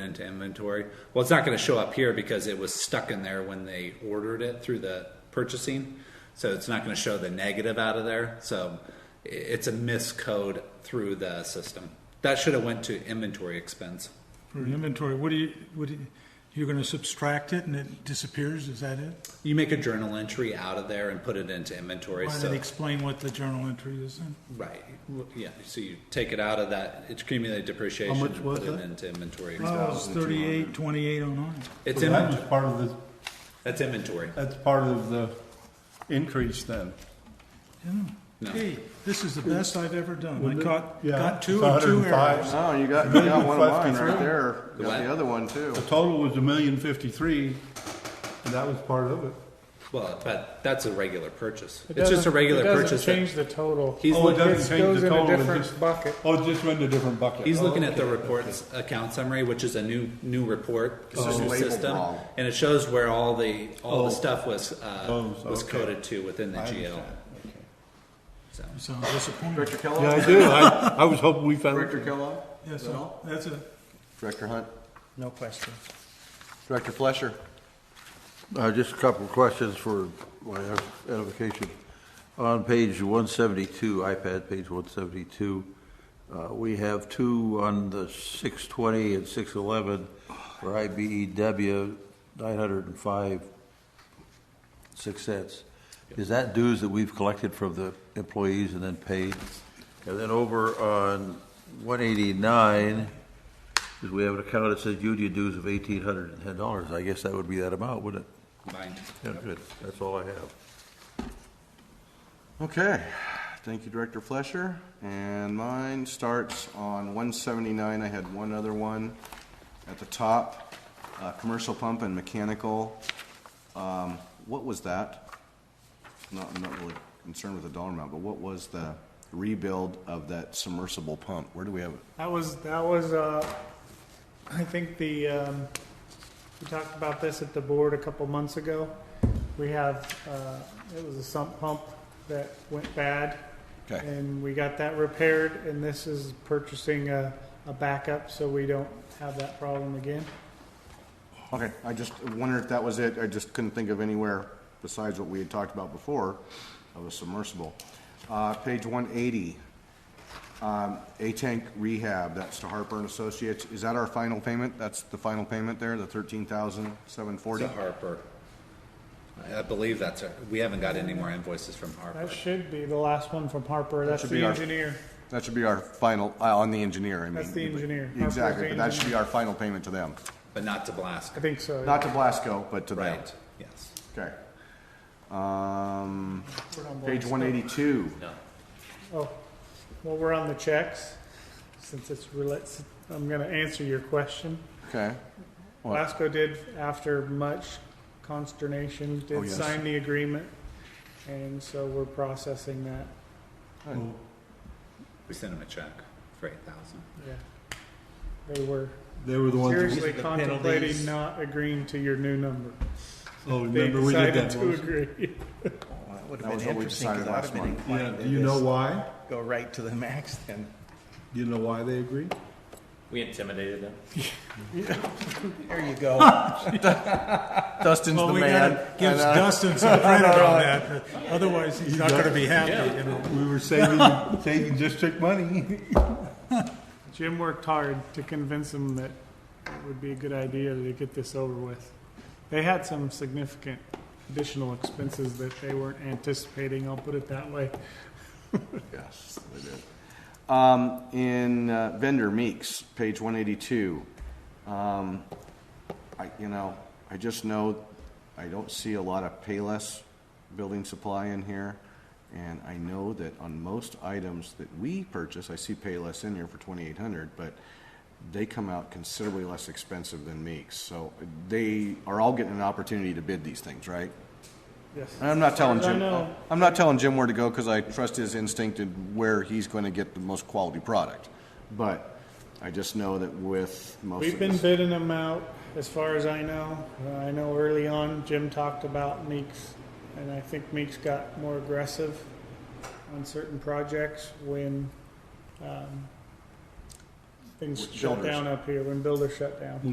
into inventory. Well, it's not going to show up here because it was stuck in there when they ordered it through the purchasing. So it's not going to show the negative out of there. So i- it's a miscode through the system. That should have went to inventory expense. For an inventory, what do you, what do you, you're gonna subtract it and it disappears, is that it? You make a journal entry out of there and put it into inventory. Why so not explain what the journal entry is then? Right. W- Yeah. So you take it out of that it's accumulated depreciation How much and was put it that? into inventory. Oh, it's 1,200. thirty-eight, twenty-eight oh nine. It's So that was inventory. part of the, That's inventory. that's part of the increase then. No. Hey, this is the best I've ever done. I Wasn't it? caught, Yeah, got two it's or two 105. errors. Oh, you got, you got one of mine right 53. there. The Got what? the other one too. The total was a million fifty-three, and that was part of it. Well, but that's a regular purchase. It It's just a doesn't- regular It purchase. doesn't that- change the total. He's Oh, it looking. doesn't It change goes the in a total, it different just- bucket. Oh, it just went in a different bucket. He's Oh, looking at the okay. report's account summary, which is a new new report. It's just a new labeled system, wrong. and it shows where all the all Oh. the stuff was uh, Oh, was okay. coded to within the I GL. understand. So Sounds disappointing. Director Kellogg? Yeah, I do. I, I was hoping we found, Director Kellogg? Yes, Is that sir. all? that's it. Director Hunt? No questions. Director Flesher? Uh, Just a couple of questions for my edification. On page 172, iPad page 172, uh, we have two on the 620 and 611 for E IBEW, 905, 6 cents. Is that dues that we've collected from the employees and then paid? And then over on 189, because we have an account that says union dues of $1,810. I guess that would be that amount, wouldn't it? combined. Yeah, good. That's all I have. Okay. Thank you, Director Flesher. And mine starts on 179. I had one other one at the top. Uh, commercial pump and mechanical. Um, what was that? Not, I'm not really concerned with the dollar amount, but what was the rebuild of that submersible pump? Where do we have it? That was, that was, uh, I think the, um, we talked about this at the board a couple months ago. We have, uh, it was a sump pump that went bad. Okay. And we got that repaired, and this is purchasing a, a backup, so we don't have that problem again. Okay, I just wondered if that was it, I just couldn't think of anywhere besides what we had talked about before of a submersible. Uh, page one eighty, um, A-Tank Rehab, that's to Harper and Associates, is that our final payment? That's the final payment there, the thirteen thousand seven It's forty? a Harper. I- I believe that's our, we haven't got any more invoices from Harper. That should be the last one from Harper. That's should the be our- engineer. That should be our final, uh, on the engineer, I mean. That's the engineer. Harper's Exactly, the but that should be our final payment to them, but not to Blask. I think so. not to Blasco, but to them. Right. Yes. Okay. Um, We're on page Blackstone. one eighty-two. No. Oh, well, we're on the checks, since it's relates, I'm gonna answer your question. Okay, What? Lasco did, after much consternation, Oh, did yes. sign the agreement, and so we're processing that, Oh, We sent him a check for eight thousand. yeah. They were they were the ones, seriously the contemplating penalties. not agreeing to your new number. oh, They remember we did decided that to once? agree. Well, that would That have was been what we interesting, decided because I'd last have been month. Yeah, inclined do to you know just why? go right to the max then. Do you know why they agreed? We intimidated them. There you go. Dustin's the Well, we man. gotta give and, uh, Dustin some credit on that, otherwise he's not gonna be happy, you know? We were saving, saving district money. Jim worked hard to convince them that it would be a good idea to get this over with. They had some significant additional expenses that they weren't anticipating, I'll put it that way. Yes, they did. Um, in uh, vendor Meeks, page one eighty-two. Um, I, you know, I just know I don't see a lot of Payless building supply in here. And I know that on most items that we purchase, I see Payless in here for twenty-eight hundred, but they come out considerably less expensive than Meeks. So they are all getting an opportunity to bid these things, right? Yes. And I'm not telling As far as I Jim. know. I'm not telling Jim where to go because I trust his instinct and where he's going to get the most quality product. But I just know that with most We've of been this- bidding them out, as far as I know. Uh, I know early on, Jim talked about Meeks, and I think Meeks got more aggressive on certain projects when um, things With shut builders. down up here, when builders shut down.